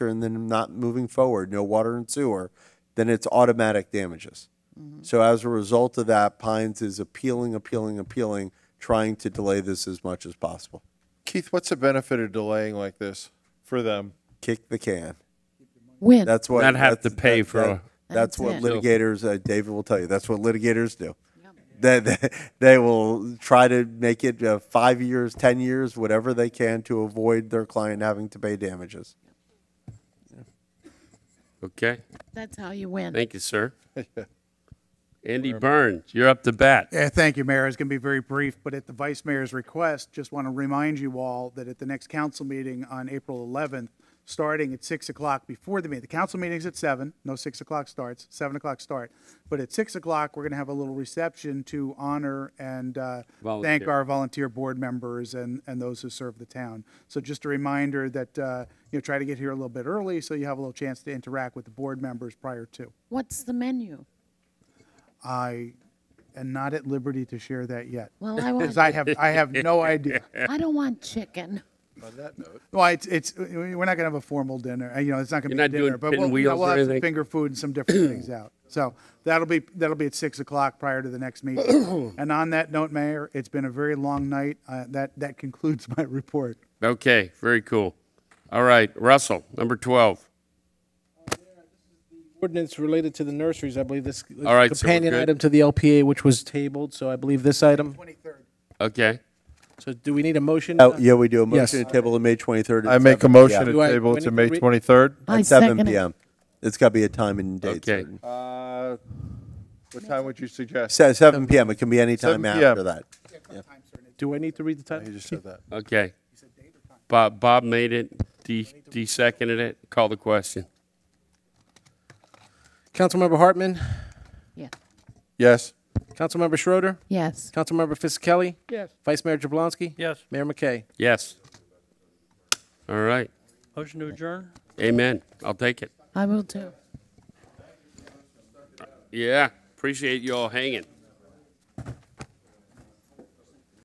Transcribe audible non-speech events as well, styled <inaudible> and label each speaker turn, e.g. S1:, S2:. S1: and then not moving forward, no water and sewer, then it's automatic damages.
S2: Mm-hmm.
S1: So as a result of that, Pines is appealing, appealing, appealing, trying to delay this as much as possible.
S3: Keith, what's the benefit of delaying like this for them?
S1: Kick the can.
S2: When?
S1: That's what.
S4: Not have
S1: that's-
S4: to pay
S1: that-
S4: for-
S1: that- That's
S2: That's
S1: what
S2: it.
S1: litigators, uh, David will tell you, that's what litigators do. They, they, they will try to make it uh, five years, 10 years, whatever they can to avoid their client having to pay damages.
S4: Okay,
S2: That's how you win.
S4: thank you, sir. Andy Burns, you're up to bat.
S5: Yeah, thank you, Mayor. It's going to be very brief, but at the Vice Mayor's request, just want to remind you all that at the next council meeting on April 11th, starting at 6 o'clock before the meeting, the council meeting's at 7, no 6 o'clock starts, 7 o'clock start. But at 6 o'clock, we're going to have a little reception to honor and uh, thank
S4: Volunteer.
S5: our volunteer board members and, and those who serve the town. So just a reminder that, uh, you know, try to get here a little bit early so you have a little chance to interact with the board members prior to.
S2: What's the menu?
S5: I am not at liberty to share that yet.
S2: Well, I
S5: Because
S2: want,
S5: I have, I
S4: <laughs>
S5: have no idea.
S2: I don't want chicken.
S5: Well, it's, it's, we're not gonna have a formal dinner, Uh, you know, it's not gonna be
S4: You're
S5: a
S4: not doing
S5: dinner, but we'll, you
S4: pinwheels
S5: know, we'll
S4: or
S5: have some
S4: anything?
S5: finger food and some
S4: <clears throat>
S5: different things out. So that'll be, that'll be at six o'clock prior to the
S4: <clears throat>
S5: next meeting. And on that note, Mayor, it's been a very long night. Uh, that, that concludes my report.
S4: Okay, very cool. All right, Russell, number 12.
S6: ordinance related to the nurseries, I believe this
S4: All right, so we're
S6: companion
S4: good.
S6: item to the LPA, which was tabled, so I believe this item.
S4: Okay,
S6: So do we need a motion?
S1: Oh, yeah, we do a
S6: Yes.
S1: motion to table on May 23rd. at
S3: I make a
S1: 7
S3: motion
S1: p.m.
S3: to
S6: Do I-
S3: table
S6: do I
S3: to
S6: need
S3: May
S6: to read-
S3: 23rd.
S2: I
S1: At 7
S2: second it.
S1: PM. It's got to be a time and date.
S4: Okay.
S1: certain.
S3: Uh, What time would you suggest?
S1: Se- 7 PM, it can be any
S3: 7
S1: time
S3: p.m.
S1: after that.
S6: Do I need to read the
S3: You
S6: title?
S3: just said that.
S4: okay. Bob, Bob made it, D, D seconded it, call the question.
S6: Councilmember Hartman,
S2: Yeah.
S3: Yes.
S6: Councilmember Schroeder,
S2: Yes.
S6: Councilmember Fisickelli,
S7: Yes.
S6: Vice Mayor Jablonski.
S7: Yes.
S6: Mayor McKay.
S4: Yes. All right,
S7: Motion to adjourn?
S4: amen, I'll take it.
S2: I will too.
S4: Yeah, appreciate you all hanging.